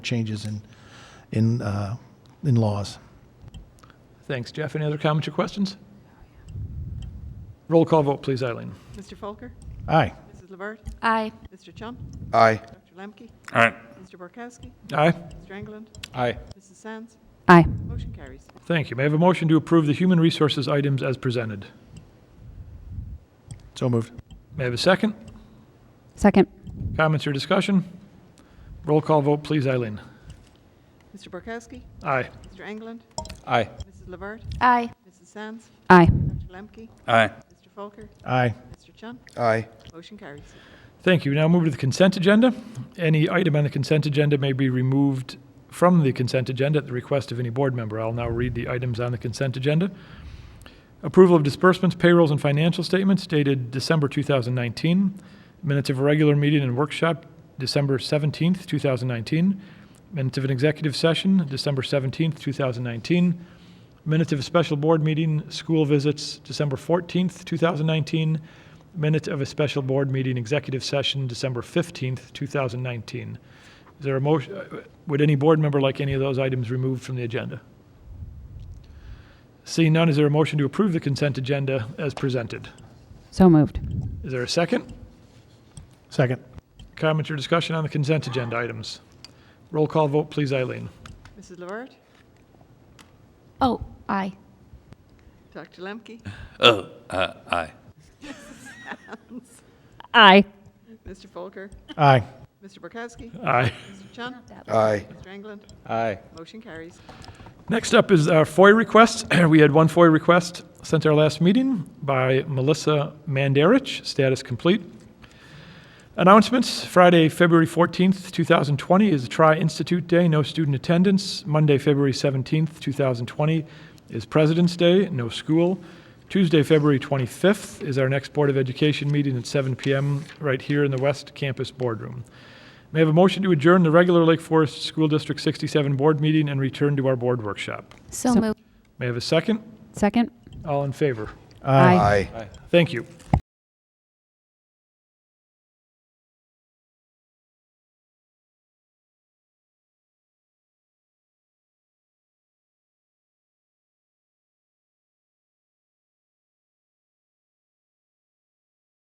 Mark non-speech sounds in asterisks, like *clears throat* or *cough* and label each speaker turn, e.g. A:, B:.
A: changes in, in, uh, in laws.
B: Thanks, Jeff. Any other comments or questions? Roll call vote, please, Eileen.
C: Mr. Folker?
A: Aye.
C: Mrs. LeVert?
D: Aye.
C: Mr. Chum?
E: Aye.
C: Dr. Lemke?
F: Aye.
C: Mr. Borkowski?
B: Aye.
C: Mr. Engelland?
F: Aye.
C: Mrs. Sands?
D: Aye.
C: Motion carries.
B: Thank you. May I have a motion to approve the human resources items as presented?
A: So moved.
B: May I have a second?
D: Second.
B: Comments or discussion? Roll call vote, please, Eileen.
C: Mr. Borkowski?
B: Aye.
C: Mr. Engelland?
F: Aye.
C: Mrs. LeVert?
D: Aye.
C: Mrs. Sands?
D: Aye.
C: Dr. Lemke?
F: Aye.
C: Mr. Folker?
A: Aye.
C: Mr. Chum?
E: Aye.
C: Motion carries.
B: Thank you. We Now move to the consent agenda. Any item on the consent agenda may be removed from the consent agenda at the request of any board member. I'll now read the items on the consent agenda. Approval of disbursements, payrolls, and financial statements dated December 2019. Minutes of a regular meeting and workshop, December 17th, 2019. Minutes of an executive session, December 17th, 2019. Minutes of a special board meeting, school visits, December 14th, 2019. Minutes of a special board meeting, executive session, December 15th, 2019. Is there a motion, uh, would any board member like any of those items removed from the agenda? Seeing none, is there a motion to approve the consent agenda as presented?
D: So moved.
B: Is there a second?
A: Second.
B: Comment or discussion on the consent agenda items? Roll call vote, please, Eileen.
C: Mrs. LeVert?
D: Oh, aye.
C: Dr. Lemke?
F: Oh, uh, aye.
D: Aye.
C: Mr. Folker?
A: Aye.
C: Mr. Borkowski?
B: Aye.
C: Mr. Chum?
E: Aye.
C: Mr. Engelland?
F: Aye.
C: Motion carries.
B: Next up is our FOIA request. *clears throat* We had one FOIA request sent our last meeting by Melissa Mandarich, status complete. Announcements, Friday, February 14th, 2020 is Tri Institute Day, no student attendance. Monday, February 17th, 2020 is President's Day, no school. Tuesday, February 25th is our next Board of Education meeting at 7 PM right here in the West Campus Boardroom. May I have a motion to adjourn the regular Lake Forest School District 67 Board meeting and return to our board workshop?
D: So
B: May I have a second?
D: Second.
B: All in favor?
D: Aye.
E: Aye.
B: Thank you.